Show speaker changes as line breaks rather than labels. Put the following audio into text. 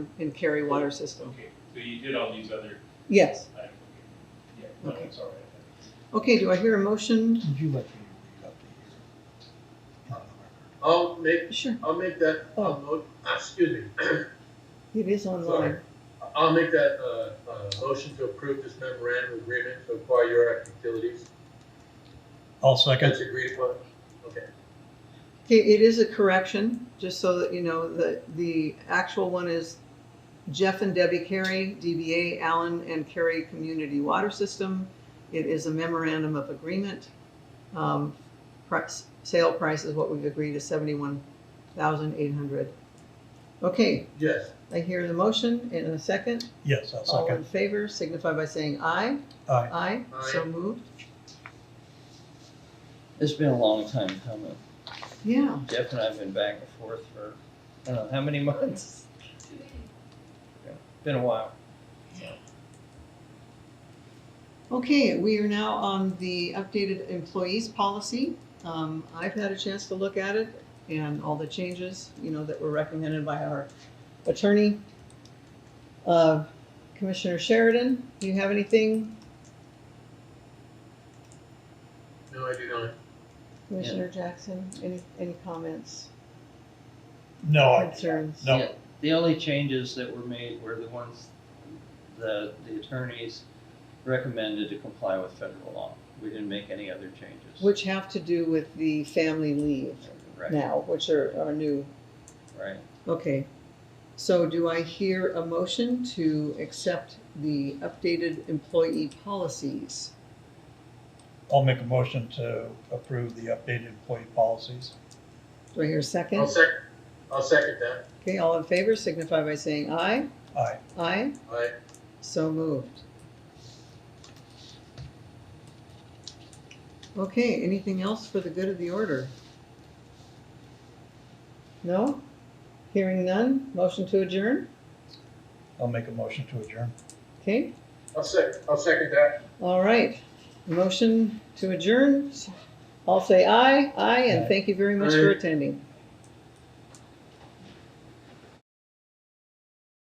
in Cary water system.
Okay, so you did all these other
Yes.
items. Yeah, no,
Okay.
it's all right.
Okay, do I hear a motion?
Would you like me to read up the year? on the
I'll make,
Sure,
I'll make that,
Oh.
I'll mo- ah, excuse me,
it is online.
I'll make that, uh, uh, motion to approve this memorandum agreement to acquire Euroact Utilities.
record? I'll second.
That's agreed upon, okay.
Okay, it is a correction, just so that you know, the, the actual one is Jeff and Debbie Carey, DBA Allen and Carey Community Water System. It is a memorandum of agreement. Um, price, sale price is what we've agreed is seventy-one thousand eight hundred. Okay,
Yes,
I hear the motion in a second.
Yes, I'll
All in
second.
favor signify by saying aye.
Aye.
Aye, so
Aye.
moved.
It's been a long time coming.
Yeah,
Jeff and I have been back and forth for, I don't know, how many months? Yeah, Been a while.
okay, we are now on the updated employees policy. Um, I've had a chance to look at it and all the changes, you know, that were recommended by our attorney. Uh, Commissioner Sheridan, do you have anything?
no, I do not.
Commissioner Jackson, any, any comments,
No, I,
concerns?
No.
Yeah, The only changes that were made were the ones that the attorneys recommended to comply with federal law. We didn't make any other changes.
Which have to do with the family leave
Right,
now, which are, are new
right.
Okay, so do I hear a motion to accept the updated employee policies?
I'll make a motion to approve the updated employee policies.
Do I hear a
I'll
second?
second, I'll second that,
Okay, all in favor signify by saying aye.
Aye.
Aye,
aye.
so moved. Okay, anything else for the good of the order? No? Hearing none, motion to adjourn?
I'll make a motion to adjourn.
Okay,
I'll sec, I'll second that,
All right, motion to adjourn. I'll say aye, aye, and
Aye.
thank you very much for
Aye.
attending.